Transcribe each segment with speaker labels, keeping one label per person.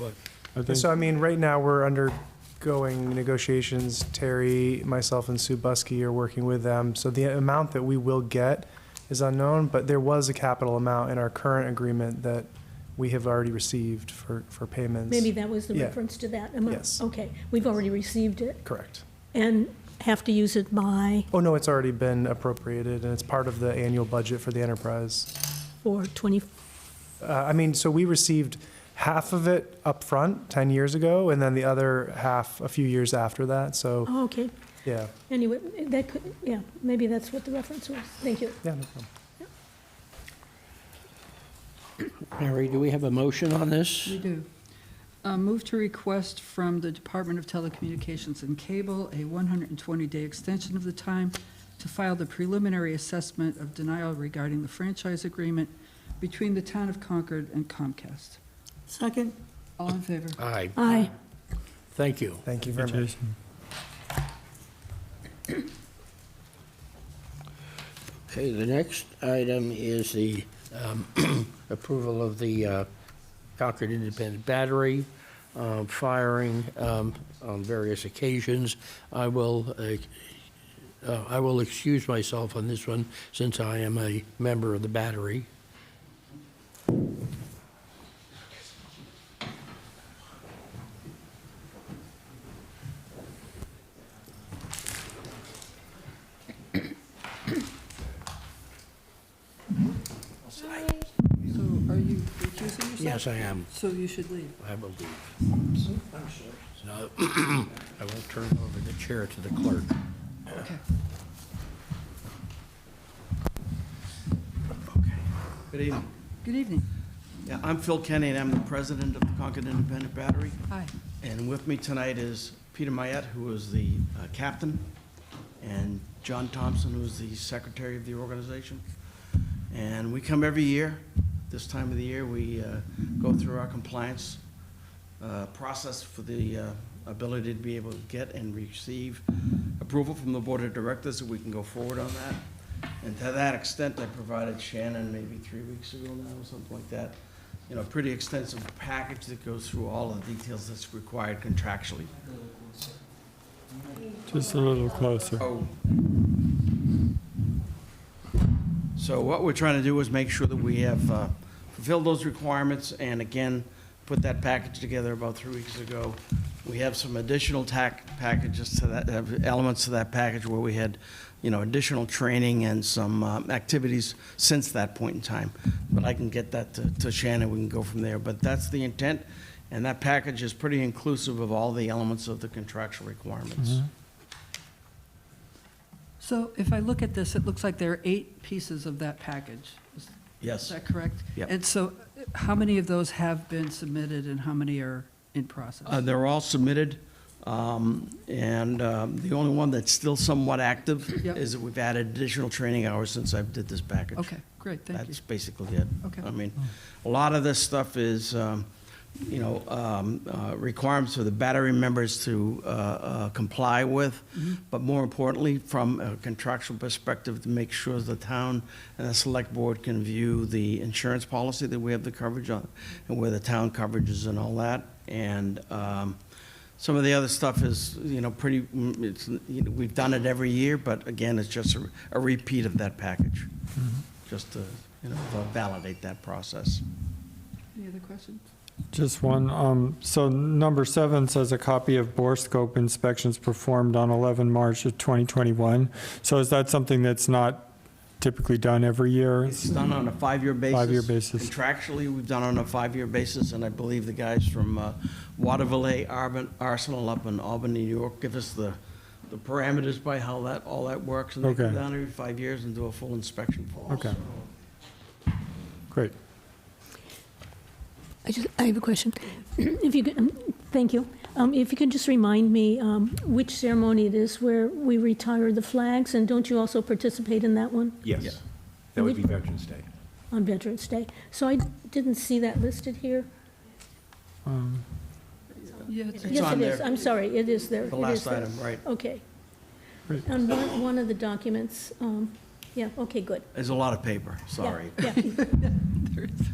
Speaker 1: I
Speaker 2: And
Speaker 1: think,
Speaker 2: So, I mean, right now, we're undergoing negotiations. Terry, myself, and Sue Buskey are working with them. So the amount that we will get is unknown, but there was a capital amount in our current agreement that we have already received for, for payments.
Speaker 3: Maybe that was the
Speaker 2: Yeah.
Speaker 3: reference to that amount?
Speaker 2: Yes.
Speaker 3: Okay, we've already received it
Speaker 2: Correct.
Speaker 3: and have to use it by,
Speaker 2: Oh, no, it's already been appropriated, and it's part of the annual budget for the enterprise.
Speaker 3: for 20,
Speaker 2: Uh, I mean, so we received half of it upfront 10 years ago, and then the other half a few years after that, so,
Speaker 3: oh, okay.
Speaker 2: yeah.
Speaker 3: Anyway, that could, yeah, maybe that's what the reference was. Thank you.
Speaker 2: Yeah, no problem.
Speaker 1: Mary, do we have a motion on this?
Speaker 4: We do. Uh, Move to request from the Department of Telecommunications and Cable a 120-day extension of the time to file the preliminary assessment of denial regarding the franchise agreement between the town of Concord and Comcast.
Speaker 5: Second,
Speaker 4: All in favor?
Speaker 1: Aye,
Speaker 3: Aye.
Speaker 1: thank you.
Speaker 2: Thank you very much.
Speaker 1: Okay, the next item is the um, approval of the uh, Concord Independent Battery uh, firing um, on various occasions. I will, uh, uh, I will excuse myself on this one since I am a member of the battery.
Speaker 4: So are you recusing yourself?
Speaker 1: Yes, I am.
Speaker 4: So you should leave.
Speaker 1: I will leave. No, I will turn over the chair to the clerk.
Speaker 4: Okay.
Speaker 6: Good evening.
Speaker 4: Good evening.
Speaker 6: Yeah, I'm Phil Kenny, and I'm the president of the Concord Independent Battery.
Speaker 4: Hi.
Speaker 6: And with me tonight is Peter Mayette, who is the uh, captain, and John Thompson, who is the secretary of the organization. And we come every year. This time of the year, we uh, go through our compliance uh, process for the uh, ability to be able to get and receive approval from the board of directors, so we can go forward on that. And to that extent, I provided Shannon maybe three weeks ago now, or something like that, you know, a pretty extensive package that goes through all the details that's required contractually.
Speaker 5: just a little closer.
Speaker 6: Oh. So what we're trying to do is make sure that we have uh, fulfilled those requirements, and again, put that package together about three weeks ago. We have some additional tac, packages to that, have elements to that package where we had, you know, additional training and some um, activities since that point in time. But I can get that to- to Shannon, we can go from there, but that's the intent, and that package is pretty inclusive of all the elements of the contractual requirements.
Speaker 4: So if I look at this, it looks like there are eight pieces of that package. Is Is
Speaker 6: Yes.
Speaker 4: that correct?
Speaker 6: Yep.
Speaker 4: And so, uh, how many of those have been submitted and how many are in process?
Speaker 6: Uh, They're all submitted, um, and um, the only one that's still somewhat active
Speaker 4: Yep.
Speaker 6: is that we've added additional training hours since I did this package.
Speaker 4: Okay, great, thank you.
Speaker 6: That's basically it.
Speaker 4: Okay.
Speaker 6: I mean, a lot of this stuff is, um, you know, um, uh, requirements for the battery members to uh, uh, comply with,
Speaker 4: Mm-hmm.
Speaker 6: but more importantly, from a contractual perspective, to make sure the town and the select board can view the insurance policy that we have the coverage on, and where the town coverage is and all that. And um, some of the other stuff is, you know, pretty, mm, it's, you know, we've done it every year, but again, it's just a- a repeat of that package, just to, you know, validate that process.
Speaker 4: Any other questions?
Speaker 5: Just one, um, so number seven says a copy of bore scope inspections performed on 11 March of 2021. So is that something that's not typically done every year?
Speaker 6: It's done on a five-year basis.
Speaker 5: Five-year basis.
Speaker 6: Contractually, we've done on a five-year basis, and I believe the guys from uh, Waterville Arben- Arsenal up in Albany, New York, give us the, the parameters by how that, all that works. And they come
Speaker 5: Okay.
Speaker 6: down every five years and do a full inspection for us.
Speaker 5: Okay. Great.
Speaker 3: I just, I have a question. If you could, um, thank you. Um, If you could just remind me um, which ceremony it is where we retire the flags, and don't you also participate in that one
Speaker 6: Yeah.
Speaker 7: Yes, that would be Veterans Day.
Speaker 3: on Veterans Day? So I didn't see that listed here.
Speaker 5: Um,
Speaker 4: Yeah, it's-
Speaker 6: It's
Speaker 3: Yes,
Speaker 6: on
Speaker 3: it is.
Speaker 6: there.
Speaker 3: I'm sorry, it is there.
Speaker 6: The
Speaker 3: It is
Speaker 6: last
Speaker 3: there.
Speaker 6: item, right.
Speaker 3: Okay.
Speaker 5: Great.
Speaker 3: On one, one of the documents, um, yeah, okay, good.
Speaker 6: There's a lot of paper,
Speaker 3: Yeah,
Speaker 6: sorry.
Speaker 3: Yeah.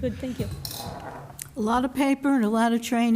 Speaker 3: Good, thank you.
Speaker 8: A lot of paper and a lot of training.